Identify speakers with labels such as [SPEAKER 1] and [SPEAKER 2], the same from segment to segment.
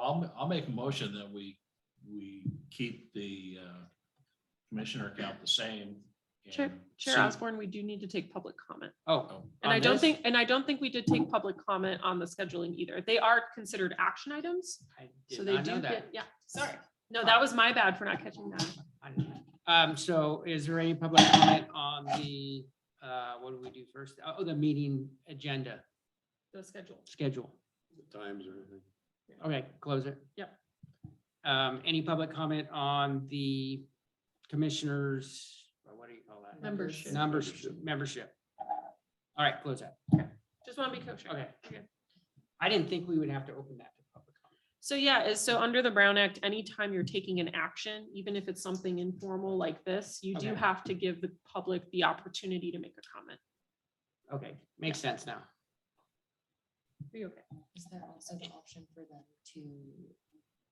[SPEAKER 1] I'll, I'll make a motion that we, we keep the uh, commissioner count the same.
[SPEAKER 2] Chair,
[SPEAKER 1] and
[SPEAKER 2] Chair
[SPEAKER 1] see-
[SPEAKER 2] Osborne, we do need to take public comment.
[SPEAKER 1] Oh. on
[SPEAKER 2] And I don't
[SPEAKER 1] this?
[SPEAKER 2] think, and I don't think we did take public comment on the scheduling either. They are considered action items.
[SPEAKER 3] I
[SPEAKER 2] So
[SPEAKER 3] did
[SPEAKER 2] they
[SPEAKER 3] not
[SPEAKER 2] do
[SPEAKER 3] know that.
[SPEAKER 2] get, yeah, sorry. No, that was my bad for not catching that.
[SPEAKER 3] I didn't know. Um, so is there any public comment on the, uh, what do we do first? Oh, the meeting agenda
[SPEAKER 2] The schedule.
[SPEAKER 3] schedule.
[SPEAKER 4] times or anything.
[SPEAKER 3] Okay, close it. Yep. Um, any public comment on the commissioners, or what do you call that?
[SPEAKER 2] Membership.
[SPEAKER 3] Numbers, membership. All right, close that.
[SPEAKER 2] Just want to be kosher.
[SPEAKER 3] Okay. I didn't think we would have to open that to public comment.
[SPEAKER 2] So yeah, is so under the Brown Act, anytime you're taking an action, even if it's something informal like this, you do
[SPEAKER 3] Okay.
[SPEAKER 2] have to give the public the opportunity to make a comment.
[SPEAKER 3] Okay, makes sense now.
[SPEAKER 2] Are you okay?
[SPEAKER 5] Is there also the option for them to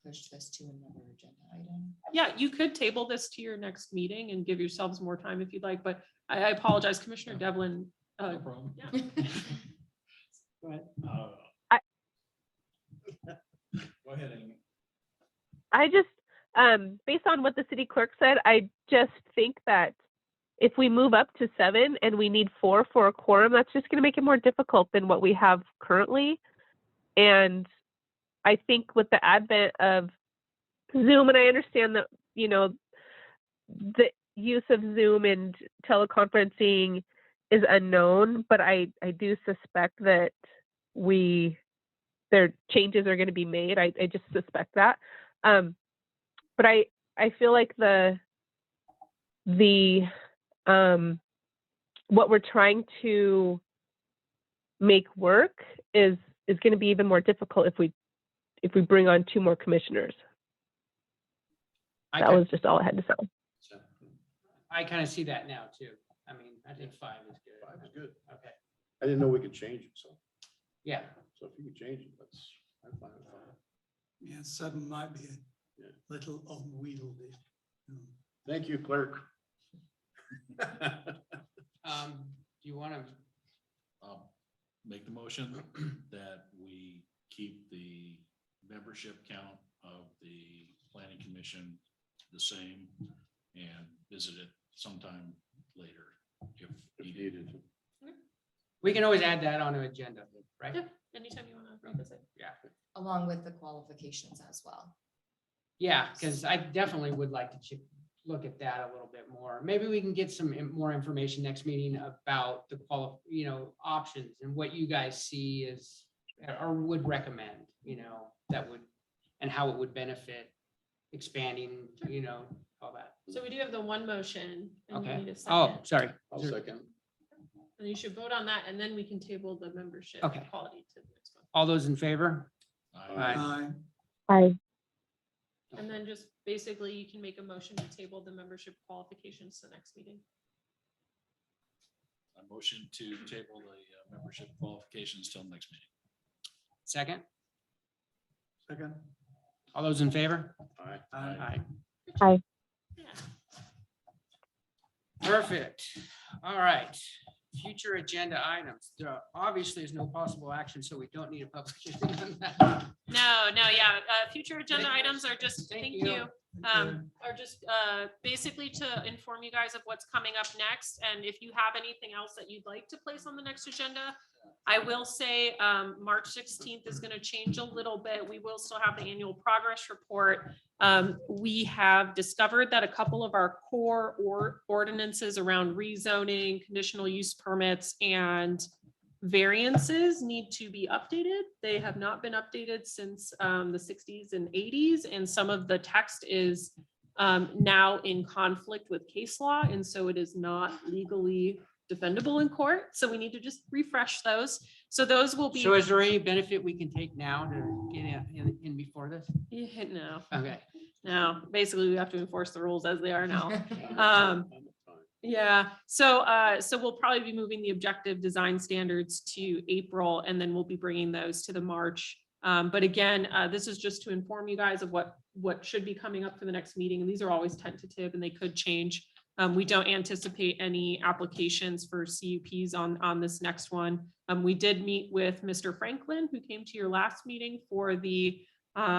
[SPEAKER 5] push this to another agenda item?
[SPEAKER 2] Yeah, you could table this to your next meeting and give yourselves more time if you'd like, but I I apologize, Commissioner Devlin. uh,
[SPEAKER 1] No problem.
[SPEAKER 2] yeah.
[SPEAKER 3] Go ahead.
[SPEAKER 1] Uh,
[SPEAKER 6] I-
[SPEAKER 1] Go ahead, Amy.
[SPEAKER 6] I just, um, based on what the city clerk said, I just think that if we move up to seven and we need four for a quorum, that's just going to make it more difficult than what we have currently. And I think with the advent of Zoom, and I understand that, you know, the use of Zoom and teleconferencing is unknown, but I, I do suspect that we, their changes are going to be made. I, I just suspect that um but i i feel like the the um what we're trying to make work is is going to be even more difficult if we if we bring on two more commissioners
[SPEAKER 3] I
[SPEAKER 6] that
[SPEAKER 3] kin-
[SPEAKER 6] was just all i had to say
[SPEAKER 3] I kind of see that now too. I mean, I think five is good.
[SPEAKER 4] Five is good.
[SPEAKER 3] Okay,
[SPEAKER 4] I didn't know we could change it, so,
[SPEAKER 3] yeah.
[SPEAKER 4] so if you could change it, that's, I'm fine with five.
[SPEAKER 7] Yeah, seven might be
[SPEAKER 4] Yeah.
[SPEAKER 7] a little unwieldy. you know.
[SPEAKER 4] Thank you, clerk.
[SPEAKER 3] Um, do you want to,
[SPEAKER 1] I'll um, Make the motion that we keep the membership count of the planning commission the same and visit it sometime later if
[SPEAKER 4] If
[SPEAKER 1] needed.
[SPEAKER 4] needed.
[SPEAKER 3] we can always add that on an agenda, right?
[SPEAKER 2] Yeah. Anytime you want to revisit.
[SPEAKER 5] Along with the qualifications as well.
[SPEAKER 3] Yeah, because I definitely would like to ch- look at that a little bit more. Maybe we can get some in- more information next meeting about the qual, you know, options and what you guys see is or would recommend, you know, that would, and how it would benefit expanding, you know, all that.
[SPEAKER 2] So we do have the one motion and you need
[SPEAKER 3] Okay.
[SPEAKER 2] a
[SPEAKER 3] Oh,
[SPEAKER 2] second.
[SPEAKER 3] sorry.
[SPEAKER 4] I'll second.
[SPEAKER 2] And you should vote on that and then we can table the membership
[SPEAKER 3] Okay.
[SPEAKER 2] quality to the next one.
[SPEAKER 3] All those in favor?
[SPEAKER 1] I-
[SPEAKER 7] Aye.
[SPEAKER 6] bye
[SPEAKER 2] And then just basically you can make a motion to table the membership qualifications to the next meeting.
[SPEAKER 1] I motion to table the uh, membership qualifications till next meeting.
[SPEAKER 3] Second?
[SPEAKER 7] Second.
[SPEAKER 3] All those in favor?
[SPEAKER 4] Aye.
[SPEAKER 7] Aye.
[SPEAKER 3] Aye.
[SPEAKER 6] Aye.
[SPEAKER 2] Yeah.
[SPEAKER 3] Perfect. All right. Future agenda items. There are- Obviously, there's no possible action, so we don't need a public hearing on that.
[SPEAKER 2] No, no, yeah, uh, future agenda
[SPEAKER 3] Thank-
[SPEAKER 2] items are just,
[SPEAKER 3] thank
[SPEAKER 2] thank
[SPEAKER 3] you.
[SPEAKER 2] you, um, are just, uh, basically to inform you guys of what's coming up next. And if you have anything else that you'd like to place on the next agenda, I will say, um, March sixteenth is gonna change a little bit. We will still have the annual progress report. Um, we have discovered that a couple of our core or ordinances around rezoning, conditional use permits and variances need to be updated. They have not been updated since um, the sixties and eighties, and some of the text is um, now in conflict with case law, and so it is not legally defendable in court. So we need to just refresh those. So those will be,
[SPEAKER 3] So is there any benefit we can take now to get in- in, in before this?
[SPEAKER 2] Yeah, no,
[SPEAKER 3] Okay.
[SPEAKER 2] no, basically we have to enforce the rules as they are now. Um, Yeah, so, uh, so we'll probably be moving the objective design standards to April and then we'll be bringing those to the March. Um, but again, uh, this is just to inform you guys of what, what should be coming up for the next meeting. And these are always tentative and they could change. Um, we don't anticipate any applications for CUPs on, on this next one. Um, we did meet with Mr. Franklin, who came to your last meeting for the, uh,